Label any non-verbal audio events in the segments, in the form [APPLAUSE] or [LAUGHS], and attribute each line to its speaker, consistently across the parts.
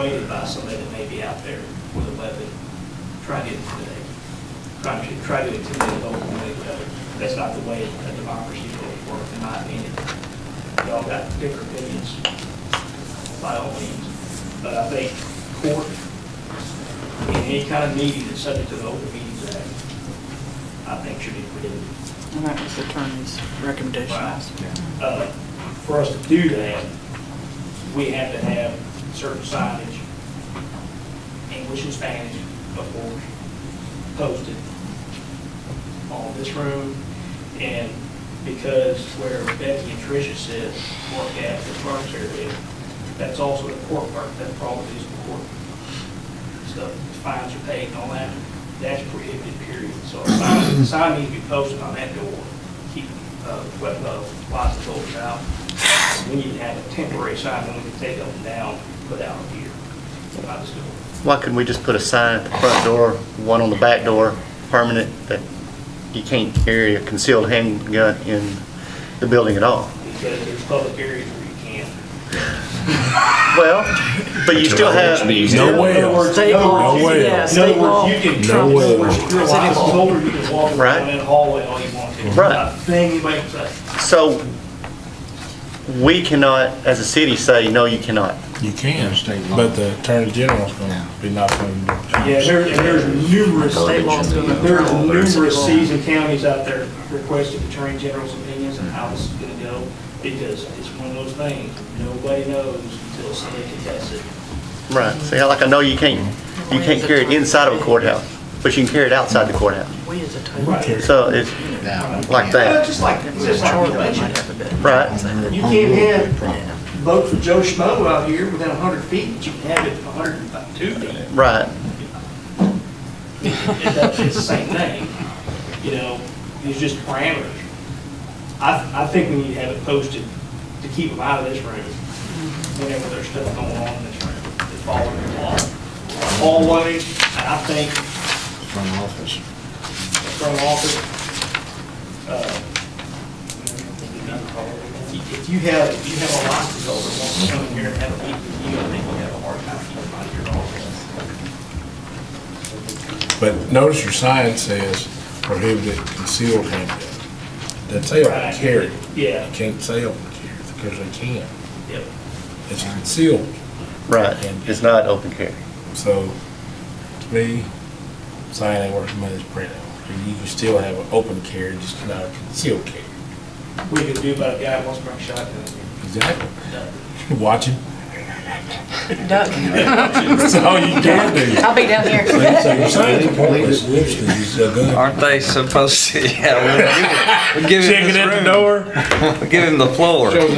Speaker 1: Waited by somebody that may be out there with a weapon, trying to intimidate, trying to, try to intimidate over the way, that's not the way a democracy will work, in my opinion. Y'all got different opinions, by all means, but I think court, in any kind of meeting that's subject to the Open Meetings Act, I think should be prohibited.
Speaker 2: And that was the attorney's recommendation
Speaker 1: Right.
Speaker 2: also.
Speaker 1: Uh, For us to do that, we have to have certain signage, English and Spanish, of course, posted on this room. And because where Becky and Tricia sit, work at the parks area, that's also the court park, that probably is the court stuff, fines are paid and all that, that's prohibited, period. So a sign, sign needs to be posted on that door, keep, uh, wet, uh, lots of doors out. We need to have a temporary sign, and we can take them down, put out here, by this door.
Speaker 3: Why couldn't we just put a sign at the front door, one on the back door, permanent, that you can't carry a concealed handgun in the building at all?
Speaker 1: because there's public areas where you can't.
Speaker 3: Well, but you still have,
Speaker 4: No way. else.
Speaker 2: State law,
Speaker 4: No way.
Speaker 2: yeah,
Speaker 1: In other
Speaker 2: state law.
Speaker 1: words, you can,
Speaker 4: No
Speaker 1: in other
Speaker 4: way.
Speaker 1: words, you're allowed to shoulder, you can walk around
Speaker 3: Right.
Speaker 1: that hallway all you want to.
Speaker 3: Right.
Speaker 1: Not a Thing anybody can say.
Speaker 3: so we cannot, as a city, say, no, you cannot.
Speaker 4: You can, but the attorney general's gonna be knocking on the door.
Speaker 1: Yeah, there, and there's numerous,
Speaker 2: State law's gonna.
Speaker 1: there's numerous
Speaker 2: State law.
Speaker 1: cities and counties out there requesting attorney general's opinions on how this is gonna go, because it's one of those things, nobody knows until somebody contests it.
Speaker 3: Right, so yeah, like I know you can't, you can't carry it inside of a courthouse, but you can carry it outside the courthouse.
Speaker 2: We as a town.
Speaker 1: Right.
Speaker 3: So it's
Speaker 1: Well,
Speaker 3: like that,
Speaker 1: Just like,
Speaker 2: If we
Speaker 1: just like
Speaker 2: charter,
Speaker 1: the
Speaker 2: we might
Speaker 1: budget.
Speaker 2: have a bit.
Speaker 3: right?
Speaker 1: You can't have vote for Joe Schmo out here within a hundred feet, but you can have it a hundred and about two feet.
Speaker 3: Right,
Speaker 1: It does- It's the same thing, you know, it's just parameters. I, I think we need to have it posted to keep them out of this room whenever there's stuff going on in this room that's following the law. Hallway, and I think
Speaker 4: From the office.
Speaker 1: from office, uh, if you have, if you have a lot to go, that wants to come in here and have a meeting with you, I think we have a hard time keeping them out of your office.
Speaker 4: But notice your sign says prohibited concealed handgun. That say open carry. You
Speaker 1: Yeah,
Speaker 4: can't say open carry because they can.
Speaker 1: yep.
Speaker 4: It's concealed.
Speaker 3: right. It's not open carry.
Speaker 4: So to me, sign ain't worth much printout. You can still have an open carry, just not a concealed carry.
Speaker 1: We could do about a guy who wants to bring a shotgun.
Speaker 4: Exactly. [LAUGHS] Watching.
Speaker 2: Duck.
Speaker 4: That's all you can do.
Speaker 2: I'll be down here.
Speaker 4: So your sign's pointless. It's a gun.
Speaker 5: Aren't they supposed to? [LAUGHS] Yeah, we'll give him, we'll give him this room.
Speaker 4: door.
Speaker 5: [LAUGHS] We'll give him the floor.
Speaker 3: There's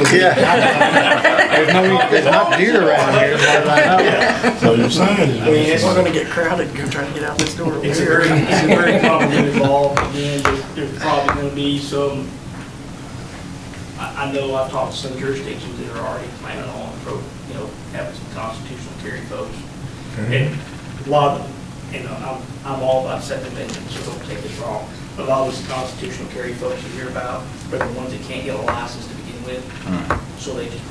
Speaker 3: no, there's not deer around here,
Speaker 4: So your sign
Speaker 1: I mean, it's,
Speaker 4: is.
Speaker 2: We're gonna get crowded, go try to get out this door.
Speaker 1: it's a very, it's a very complicated ball, and then there's- there's probably gonna be some, I, I know I've talked to some jurisdictions that are already planning on, pro- you know, having some constitutional carry votes. And a lot of, and I'm, I'm all about Second Amendment, so don't take this wrong. But A lot of these constitutional carry folks you hear about are the ones that can't get a license to begin with. So they just,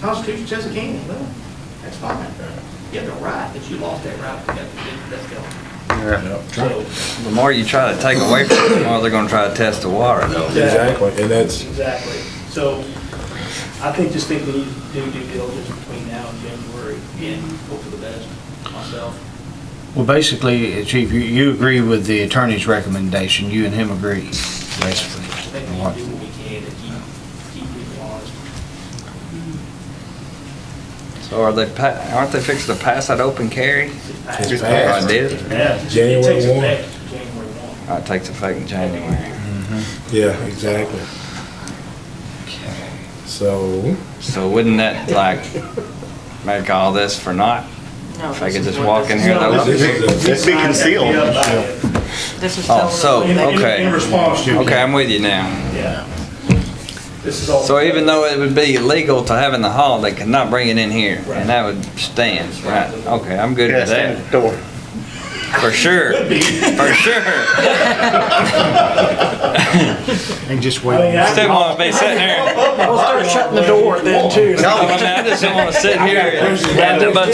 Speaker 1: Constitution says it can, well, that's fine. You have the right, but you lost that right, you got to, that's gone. So,
Speaker 5: The more you try to take away from them, the more they're gonna try to test the water, though.
Speaker 4: Exactly, and that's,
Speaker 1: Exactly. So I think, just think we need to do due diligence between now and January and hope for the best myself.
Speaker 6: Well, basically, Chief, you, you agree with the attorney's recommendation, you and him agree, basically.
Speaker 1: I think we need to do what we can to keep, keep people honest.
Speaker 5: So are they, pa- aren't they fixing to pass that open carry?
Speaker 4: It's
Speaker 5: Oh,
Speaker 4: passed.
Speaker 5: I did?
Speaker 1: Yeah. It
Speaker 4: January
Speaker 1: takes
Speaker 4: one.
Speaker 1: effect January one.
Speaker 5: Oh, It takes effect in January.
Speaker 4: yeah, exactly. So,
Speaker 5: So wouldn't that, like, make all this for naught?
Speaker 2: No,
Speaker 5: If I
Speaker 2: this
Speaker 5: could
Speaker 2: is
Speaker 5: just
Speaker 2: what
Speaker 5: walk in here,
Speaker 1: No,
Speaker 5: though?
Speaker 4: this is
Speaker 3: It's be concealed.
Speaker 2: This is.
Speaker 5: Oh,
Speaker 2: telling
Speaker 5: so-
Speaker 2: them
Speaker 1: In- in-
Speaker 5: Okay.
Speaker 1: In response to.
Speaker 5: Okay, I'm with you now.
Speaker 1: Yeah. This is all.
Speaker 5: So
Speaker 1: [LAUGHS]
Speaker 5: even though it would be illegal to have in the hall, they could not bring it in here,
Speaker 1: Right.
Speaker 5: and that would stand, right? Okay, I'm good
Speaker 3: Yeah,
Speaker 5: with
Speaker 3: stand
Speaker 5: that.
Speaker 3: at the door.
Speaker 5: For sure. For sure.
Speaker 4: And just wait.
Speaker 5: Still want to be sitting there.
Speaker 1: We'll start shutting the door then too.
Speaker 5: No, I mean, I just don't want to sit here and have to bunch